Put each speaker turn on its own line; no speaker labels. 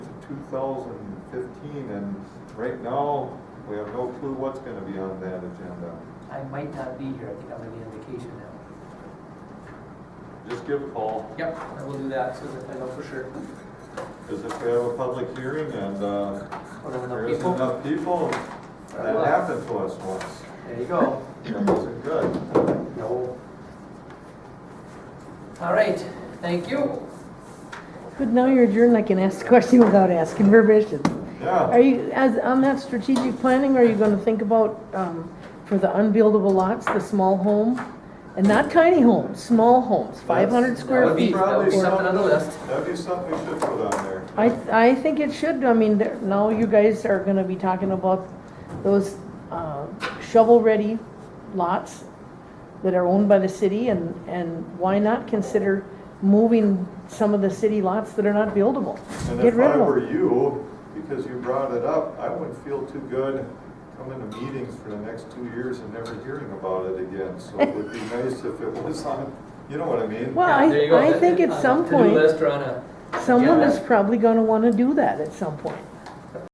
two thousand fifteen, and right now, we have no clue what's gonna be on that agenda.
I might not be here, I think I'm gonna be on vacation now.
Just give a call,
Yep, I will do that, so that I know for sure.
because if we have a public hearing and, uh,
Or enough
there isn't
people.
enough people, that
Well-
happened to us once.
There you go.
That wasn't good.
No. All right, thank you.
But now you're adjourned, I can ask the question without asking permission.
Yeah,
Are you, as, on that strategic planning, are you gonna think about, um, for the unbuildable lots, the small home? And not tiny homes, small homes, five hundred
That
square
would be-
feet?
That would be something on the list.
that'd be something we should put on there.
I, I think it should, I mean, there- now you guys are gonna be talking about those, uh, shovel-ready lots that are owned by the city, and, and why not consider moving some of the city lots that are not buildable?
And
Get
if
rid
I
of them.
were you, because you brought it up, I wouldn't feel too good coming to meetings for the next two years and never hearing about it again. So it would be nice if it was on, you know what I mean?
Well,
Yeah, there you go.
I, I think
On
at
a
some
to-do
point,
list or on a-
someone
Yeah.
is probably gonna wanna do that at some point.